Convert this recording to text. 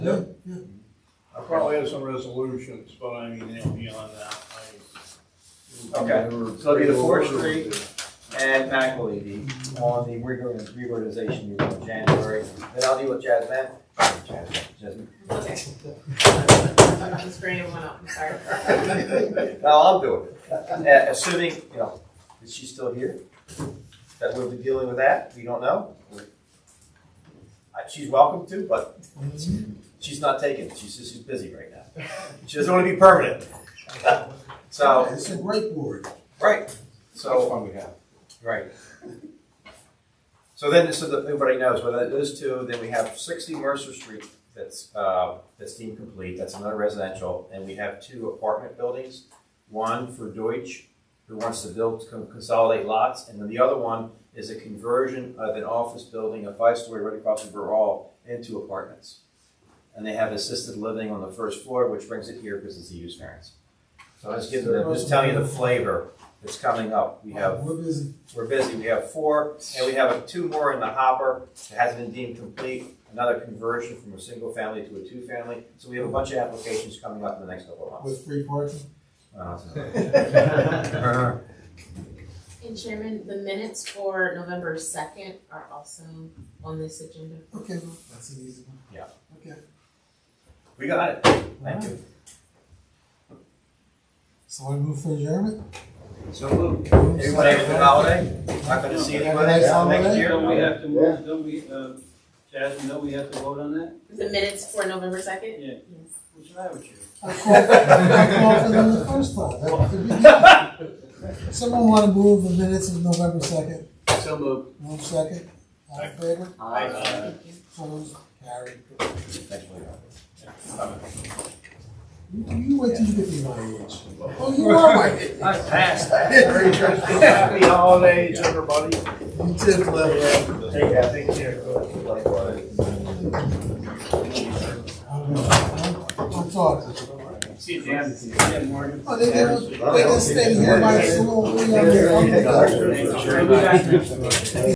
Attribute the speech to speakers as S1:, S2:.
S1: Yeah, yeah.
S2: I probably have some resolutions, but I mean, they're beyond that.
S3: Okay, so it'll be the forestry and McElady on the reorg- reorganization meeting in January. Then I'll deal with Jasmine. Jasmine, Jasmine.
S4: Okay. I'm just bringing one up, sorry.
S3: No, I'll do it. Uh, Assuming, you know, is she still here? That we'll be dealing with that, we don't know. Uh, She's welcome to, but she's not taken, she's just, she's busy right now. She doesn't want to be permanent. So,
S1: It's a great board.
S3: Right, so.
S5: fun we have.
S3: Right. So then, so that everybody knows, well, those two, then we have sixty Mercer Street that's, uh, that's deemed complete, that's another residential, and we have two apartment buildings. One for Deutsch, who wants to build, con- consolidate lots, and then the other one is a conversion of an office building, a five-story right across from Burrall, into apartments. And they have assisted living on the first floor, which brings it here because it's a use variance. So I'm just giving, them- just telling you the flavor that's coming up. We have
S1: We're busy.
S3: we're busy, we have four, and we have two more in the hopper that hasn't been deemed complete, another conversion from a single family to a two-family, so we have a bunch of applications coming up in the next couple of months.
S1: With free parking.
S3: Uh, so-
S4: And Chairman, the minutes for November second are also on this agenda.
S1: Okay, well, that's an easy one.
S3: Yeah.
S1: Okay.
S3: We got it, thank you.
S1: So I move for adjournment?
S3: So, everybody have a good holiday, not gonna see anybody until next
S6: Don't we
S3: year.
S6: have to move, don't we, uh, Jasmine, don't we have to vote on that?
S4: The minutes for November second?
S6: Yeah.
S4: Yes.
S6: What's the matter with you?
S1: I called, I called for them the first time. That could be- Someone want to move the minutes of November second?
S5: So moved.
S1: Move second. All in favor?
S3: Aye.
S4: Thank you.
S1: Opposed? Carried.
S3: Thanks, Leo.
S1: You, you wait till you get to my age. Oh, you are my age.
S2: I passed
S1: Very good.
S2: Happy holidays, everybody.
S1: You too, clever.
S2: Take care, take care.
S1: I'm I'm talking.
S2: See you, Dan.
S6: Yeah, Morgan.
S1: Oh, they, they don't, um they just stay here by the school. We are-
S2: Thank you.